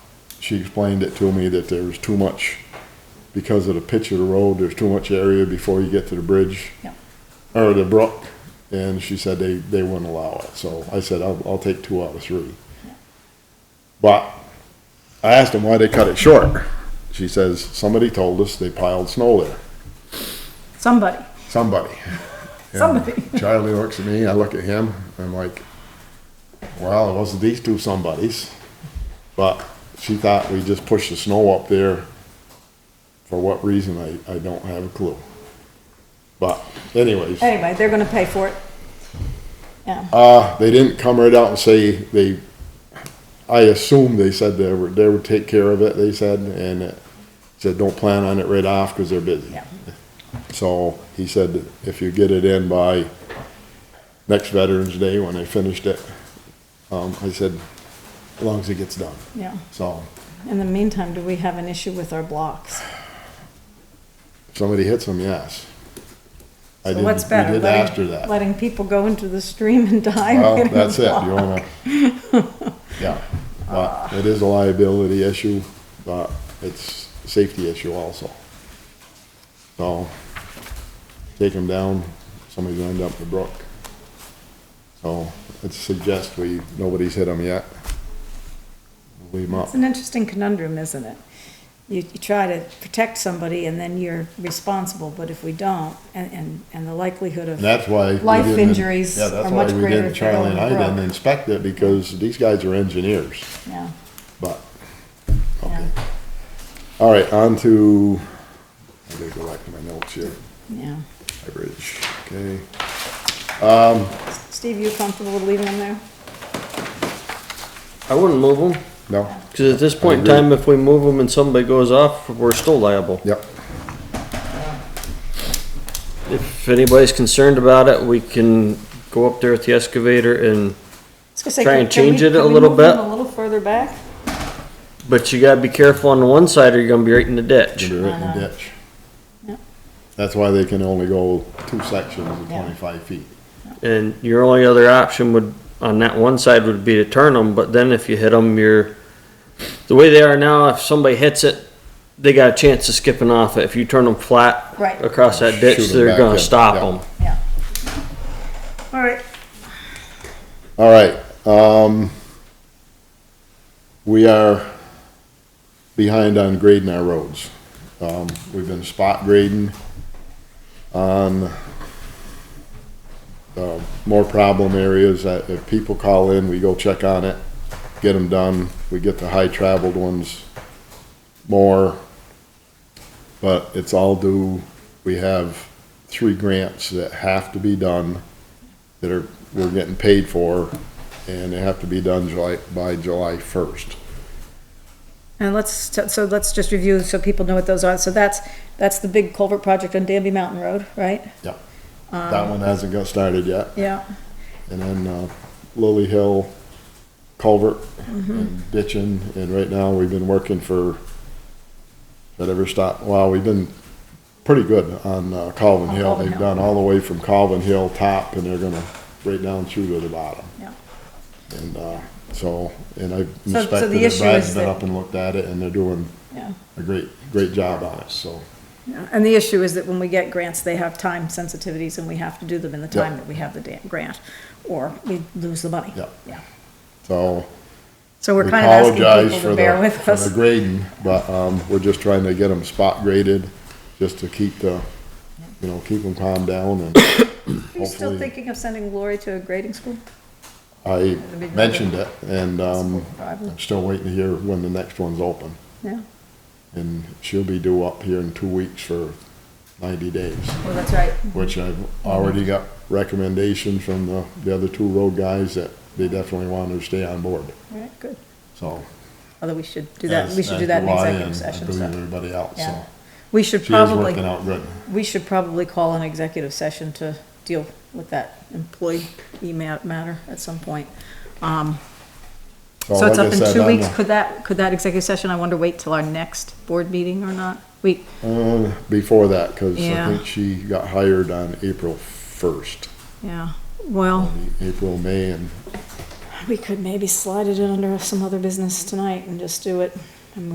she explained it to me that there was too much, because of the pitch of the road, there's too much area before you get to the bridge. Yeah. Or the brook, and she said they, they wouldn't allow it, so I said, I'll, I'll take two out of three. But I asked them why they cut it short. She says, somebody told us they piled snow there, Somebody, somebody. somebody. Charlie looks at me, I look at him, I'm like, well, it wasn't these two somebodies. But she thought we just pushed the snow up there. For what reason, I, I don't have a clue. But anyways, Anyway, they're gonna pay for it. Yeah, uh, they didn't come right out and say they, I assume they said they were, they would take care of it, they said, and it said, don't plan on it right off, cause they're busy. yeah. So he said, if you get it in by next Veterans Day, when they finished it, um, I said, as long as it gets done. Yeah. So In the meantime, do we have an issue with our blocks? if somebody hits them, yes. I So did- what's better? We did letting- ask her that. Letting people go into the stream and die? or Well, getting that's it, blocked? you wanna, yeah, but it is a liability issue, but it's a safety issue also. So, take them down, somebody's gonna end up in the brook. So, I'd suggest we, nobody's hit them yet. Leave them up, It's an interesting conundrum, isn't it? You, you try to protect somebody and then you're responsible, but if we don't, and, and, and the likelihood and of, that's why. we Life didn't- injuries yeah, that's are why much we greater didn't- if they're Charlie and on the I didn't brook. inspect it, because these guys are engineers, yeah, but, yeah, okay. All right, on to, I gotta go back to my notes here, yeah. average, okay. Steve, you comfortable with leaving them there? I wouldn't move them, No, because at this point in agree. time, if we move them and somebody goes off, we're still liable. yep, If anybody's concerned about it, we can go up there with the excavator and, I was gonna say, Try can- and can we- change it a can we little move them bit. A little further back? but you gotta be careful on the one side or you're gonna be right in the it's ditch. gonna be right in Uh-huh. the ditch. Yep. That's why they can only go two sections of Yeah. twenty-five feet. Mm-hmm. And your only other option would, on that one side would be to turn them, but then if you hit them, you're, the way they are now, if somebody hits it, they got a chance of skipping off it. If you turn them flat Right. across that Shoot ditch, 'em back they're in, gonna stop yeah. them. Yeah. All right, All right, um, we are behind on grading our roads. Um, we've been spot grading on uh, more problem areas that if people call in, we go check on it, get them done. We get the high traveled ones more. But it's all due, we have three grants that have to be done that are, we're getting paid for, and they have to be done July, by July first. and let's, so let's just review so people know what those are. So that's, that's the big culvert project on Danby Mountain Road, right? Yep. That one hasn't got started yet, Yeah, and then, uh, Lily Hill culvert Mm-hmm. and ditching, and right now, we've been working for, that ever stop, wow, we've been pretty good on uh, Calvin On Hill. Calvin They've Hill. done all the way from Calvin Hill top, and they're gonna right down through to the bottom. yeah. And, uh, so, and I've So- so the inspected it, issue Brad's is been that- up and looked at it, and they're doing Yeah, a great, great job on it, so. yeah. and the issue is that when we get grants, they have time sensitivities and we have to do them in the time Yeah. that we have the da- grant, or we lose the money. Yeah. Yeah. So So we we're kind of asking apologize people for to bear the, with for the us. grading, but, um, we're just trying to get them spot graded, just to keep the, you know, keep them calm down and Are you still hopefully- thinking of sending Lori to a grading school? I be good. mentioned it, and, um, Probably. I'm still waiting to hear when the next one's open. Yeah, And she'll be due up here in two weeks for ninety days, well, that's right. which I've already got recommendations from the, the other two road guys that they definitely want her to stay on board, Right, good. so. Although we should do that, as- we should do as that in do I executive and I session, believe so, Everybody else, yeah. so. We should She is working probably, out good. we should probably call an executive session to deal with that employee email matter at some point. Um, So it's like I up in said, two I'm weeks, a- could that, could that executive session, I wonder, wait till our next board meeting or not? Wait, Uh, before that, cause I Yeah. think she got hired on April first, yeah, well, April, May, and we could maybe slide it in under some other business tonight and just do it